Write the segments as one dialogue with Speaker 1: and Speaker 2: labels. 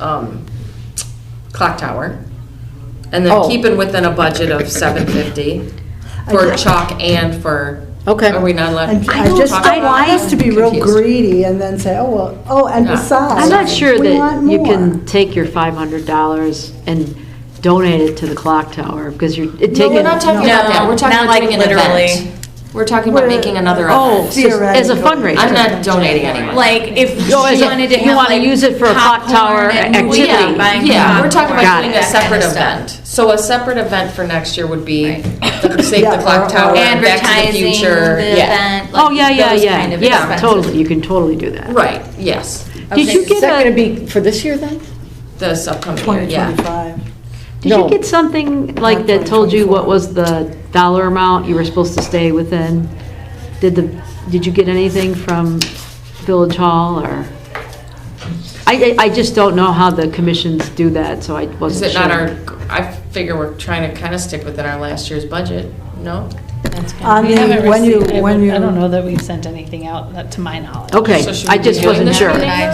Speaker 1: um, clock tower. And they're
Speaker 2: Oh.
Speaker 1: keeping within a budget of seven fifty
Speaker 3: I
Speaker 1: for
Speaker 3: ju-
Speaker 1: chalk and for.
Speaker 2: Okay.
Speaker 1: Are we not allowed?
Speaker 3: I
Speaker 1: to
Speaker 3: I just
Speaker 1: talk
Speaker 3: don't
Speaker 1: about
Speaker 3: want
Speaker 1: it?
Speaker 3: us to be real
Speaker 1: Confused.
Speaker 3: greedy and then say, oh, well, oh, and
Speaker 1: Yeah.
Speaker 3: besides.
Speaker 4: I'm not sure
Speaker 3: we
Speaker 4: that
Speaker 3: want
Speaker 4: you
Speaker 3: more."
Speaker 4: can take your $500 and donate it to the clock tower, because you're it
Speaker 1: No,
Speaker 4: taking.
Speaker 1: we're not talking about that, we're talking
Speaker 5: not
Speaker 1: about
Speaker 5: like
Speaker 1: doing an
Speaker 5: literally.
Speaker 1: event. We're talking about
Speaker 3: We're-
Speaker 1: making another
Speaker 4: Oh,
Speaker 1: event.
Speaker 4: so as a
Speaker 3: Theoretical.
Speaker 4: fundraiser.
Speaker 1: I'm not donating anymore.
Speaker 5: Like if she
Speaker 4: Oh, is it-
Speaker 5: wanted to
Speaker 4: you
Speaker 5: have
Speaker 4: wanna
Speaker 5: like
Speaker 4: use it for a clock tower
Speaker 5: popcorn and
Speaker 4: activity.
Speaker 5: movie
Speaker 1: Yeah,
Speaker 5: and buying
Speaker 1: yeah, we're
Speaker 5: popcorn.
Speaker 1: talking about
Speaker 4: Got
Speaker 1: doing
Speaker 4: it.
Speaker 1: a separate
Speaker 5: That kind of
Speaker 1: event.
Speaker 5: stuff.
Speaker 1: So a separate event for next year would be the Save
Speaker 3: Yeah,
Speaker 1: the Clock
Speaker 3: or-
Speaker 1: Tower, and Back to the
Speaker 5: Advertising the
Speaker 1: Future. Yeah.
Speaker 5: event.
Speaker 4: Oh,
Speaker 5: like
Speaker 4: yeah, yeah,
Speaker 5: those
Speaker 4: yeah,
Speaker 5: kind of
Speaker 4: yeah,
Speaker 5: expenses.
Speaker 4: totally, you can totally do that.
Speaker 1: Right, yes,
Speaker 4: Did you
Speaker 2: Is that going
Speaker 4: get
Speaker 2: to
Speaker 4: a,
Speaker 2: be for this year then?
Speaker 1: this upcoming year, yeah.
Speaker 3: 2025.
Speaker 4: did you
Speaker 2: No.
Speaker 4: get something like that told you what was the dollar amount you were supposed to stay within? Did the, did you get anything from Village Hall or? I, I I just don't know how the commissions do that, so I
Speaker 1: Is
Speaker 4: wasn't
Speaker 1: it
Speaker 4: sure.
Speaker 1: not our, I figure we're trying to kind of stick within our last year's budget, no?
Speaker 3: On
Speaker 6: We haven't
Speaker 3: the, when you,
Speaker 6: received- I
Speaker 3: when
Speaker 6: would-
Speaker 3: you.
Speaker 6: I don't know that we've sent anything out, that- to my knowledge.
Speaker 4: Okay,
Speaker 1: So should
Speaker 4: I
Speaker 1: we
Speaker 4: just
Speaker 1: be doing
Speaker 4: wasn't
Speaker 1: that
Speaker 4: sure.
Speaker 1: right now?
Speaker 5: I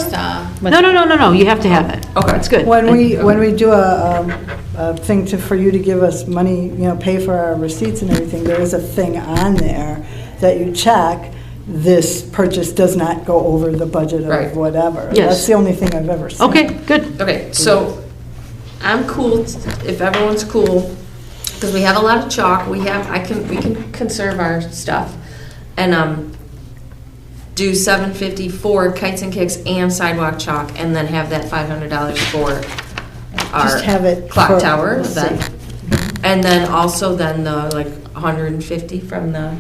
Speaker 5: saw.
Speaker 4: No, no, no, no, no, you have to have it.
Speaker 1: Okay.
Speaker 4: It's good.
Speaker 3: When we, when we do a, um, a thing to, for you to give us money, you know, pay for our receipts and everything, there is a thing on there that you check, this purchase does not go over the budget
Speaker 1: Right.
Speaker 3: of whatever.
Speaker 4: Yes.
Speaker 3: That's the only thing I've ever seen.
Speaker 4: Okay, good.
Speaker 1: Okay, so I'm cool, if everyone's cool, because we have a lot of chalk, we have, I can, we can conserve our stuff. And, um, do seven fifty for kites and kicks and sidewalk chalk, and then have that five hundred dollars for
Speaker 3: Just have
Speaker 1: our
Speaker 3: it
Speaker 1: clock
Speaker 3: for-
Speaker 1: tower
Speaker 3: let's
Speaker 1: event.
Speaker 3: see.
Speaker 1: And then also then the, like, hundred and fifty from the,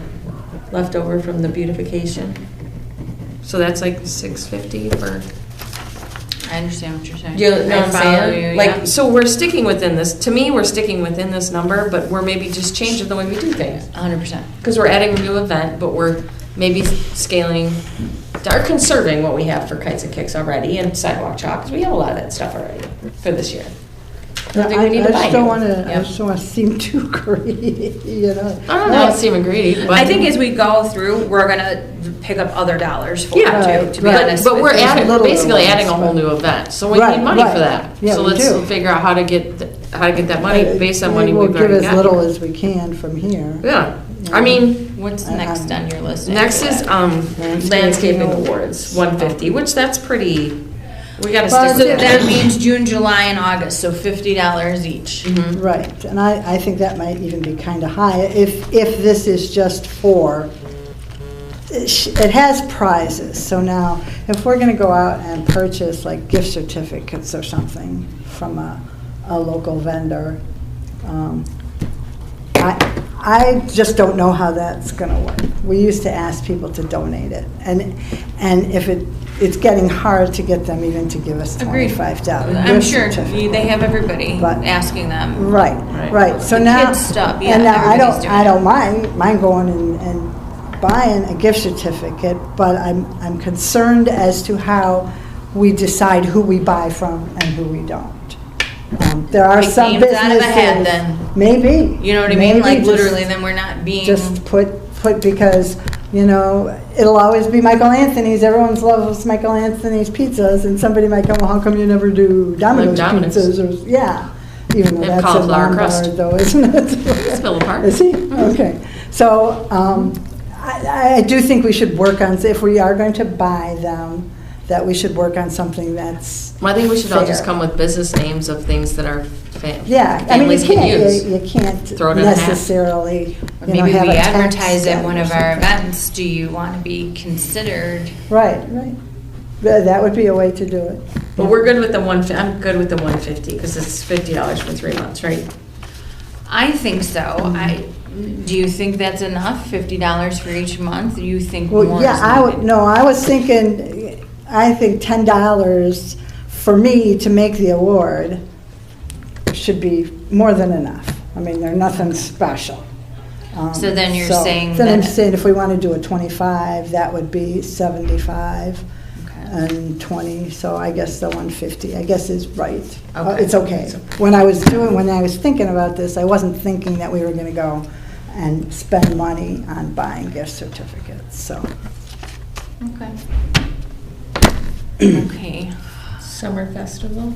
Speaker 1: leftover from the beautification. So that's like six fifty for
Speaker 5: I understand what you're saying.
Speaker 1: you know what I'm
Speaker 5: I follow
Speaker 1: saying?
Speaker 5: you, yeah.
Speaker 1: Like, so we're sticking within this, to me, we're sticking within this number, but we're maybe just changing the way we do things.
Speaker 5: hundred percent.
Speaker 1: Because we're adding a new event, but we're maybe scaling, or conserving what we have for kites and kicks already and sidewalk chalk, 'cause we have a lot of that stuff already for this year. I
Speaker 3: Yeah,
Speaker 1: don't think we
Speaker 3: I I
Speaker 1: need to buy
Speaker 3: just don't
Speaker 1: new.
Speaker 3: want to, I
Speaker 1: Yeah.
Speaker 3: just don't want to seem too greedy, you know?
Speaker 1: I don't know, it seemed greedy, but.
Speaker 5: I think as we go through, we're gonna pick up other dollars for it
Speaker 1: Yeah,
Speaker 5: too, to be
Speaker 1: but,
Speaker 5: honest
Speaker 1: but
Speaker 5: with
Speaker 1: we're
Speaker 5: you.
Speaker 1: adding,
Speaker 3: little
Speaker 1: basically
Speaker 3: events,
Speaker 1: adding a whole
Speaker 3: but-
Speaker 1: new event, so we
Speaker 3: Right,
Speaker 1: need money for
Speaker 3: right.
Speaker 1: that.
Speaker 3: Yeah,
Speaker 1: So
Speaker 3: we do.
Speaker 1: let's figure out how to get, th- how to get that money based on money
Speaker 3: We'll
Speaker 1: we've
Speaker 3: give
Speaker 1: already
Speaker 3: as little
Speaker 1: got.
Speaker 3: as we can from here.
Speaker 1: Yeah, I mean.
Speaker 5: What's
Speaker 4: Uh,
Speaker 3: I-
Speaker 5: next
Speaker 3: I'm-
Speaker 5: on your list?
Speaker 1: Next
Speaker 5: after
Speaker 1: is
Speaker 5: that?
Speaker 1: um,
Speaker 3: Landscaping
Speaker 1: landscaping
Speaker 3: awards.
Speaker 1: awards, 150, which that's pretty, we gotta
Speaker 5: So
Speaker 1: stick with
Speaker 5: that
Speaker 1: that.
Speaker 5: means June, July, and August, so fifty dollars each.
Speaker 3: Right, and I, I think that might even be kind of high, if, if this is just for, it sh- it has prizes, so now, if we're gonna go out and purchase like gift certificates or something from a, a local vendor, um, I, I just don't know how that's gonna work. We used to ask people to donate it, and, and if it, it's getting hard to get them even to give us
Speaker 5: Agreed.
Speaker 3: twenty-five dollars.
Speaker 5: I'm sure you- they have everybody
Speaker 3: But-
Speaker 5: asking them.
Speaker 3: Right,
Speaker 1: Right.
Speaker 3: right, so
Speaker 5: The
Speaker 3: now.
Speaker 5: kids stuff, yeah,
Speaker 3: And now I
Speaker 5: everybody's
Speaker 3: don't,
Speaker 5: doing
Speaker 3: I
Speaker 5: it.
Speaker 3: don't mind, mind going and, and buying a gift certificate, but I'm, I'm concerned as to how we decide who we buy from and who we don't. Um, There are
Speaker 5: Like
Speaker 3: some
Speaker 5: names out of a hat,
Speaker 3: businesses-
Speaker 5: then.
Speaker 3: Maybe.
Speaker 5: You know what I mean?
Speaker 3: maybe
Speaker 5: Like
Speaker 3: just-
Speaker 5: literally, then we're not being.
Speaker 3: Just put, put because, you know, it'll always be Michael Anthony's, everyone's loves Michael Anthony's pizzas, and somebody might go, well, how come you never do Domino's
Speaker 1: Domino's.
Speaker 3: pizzas? or Yeah, even though
Speaker 1: They have
Speaker 3: that's a
Speaker 1: cauliflower
Speaker 3: Lombard
Speaker 1: crust.
Speaker 3: though, isn't it?
Speaker 1: It's Villa Park.
Speaker 3: Is he? Okay. So um, I I do think we should work on, if we are going to buy them, that we should work on something that's
Speaker 1: Well, I think we should all just
Speaker 3: fair.
Speaker 1: come with business names of things that our fa-
Speaker 3: Yeah, I mean, you
Speaker 1: families can
Speaker 3: can't,
Speaker 1: use.
Speaker 3: you- you can't
Speaker 1: Throw it in a hat.
Speaker 3: necessarily,
Speaker 5: Or
Speaker 3: you know,
Speaker 5: Maybe
Speaker 3: have
Speaker 5: we
Speaker 3: a tax
Speaker 5: advertise
Speaker 3: set
Speaker 5: at one
Speaker 3: or
Speaker 5: of our
Speaker 3: something.
Speaker 5: events, do you want to be considered?
Speaker 3: Right, right. Th- That would be a way to do it.
Speaker 1: But we're good with the one, fi- I'm good with the 150, because it's $50 for three months, right?
Speaker 5: I think so.
Speaker 3: Mm-hmm.
Speaker 5: I, do you think that's enough, fifty dollars for each month? You think more is
Speaker 3: Well,
Speaker 5: needed?
Speaker 3: yeah, I would, no, I was thinking, I think ten dollars for me to make the award should be more than enough. I mean, they're nothing special. Um,
Speaker 5: So then you're
Speaker 3: so-
Speaker 5: saying
Speaker 3: Then I'm
Speaker 5: that-
Speaker 3: saying if we want to do a twenty-five, that would be seventy-five
Speaker 5: Okay.
Speaker 3: and twenty, so I guess the one fifty, I guess is right. Uh,
Speaker 5: Okay.
Speaker 3: It's okay. When I was doing, when I was thinking about this, I wasn't thinking that we were gonna go and spend money on buying gift certificates, so.
Speaker 5: Okay. Okay.
Speaker 1: Summer festival.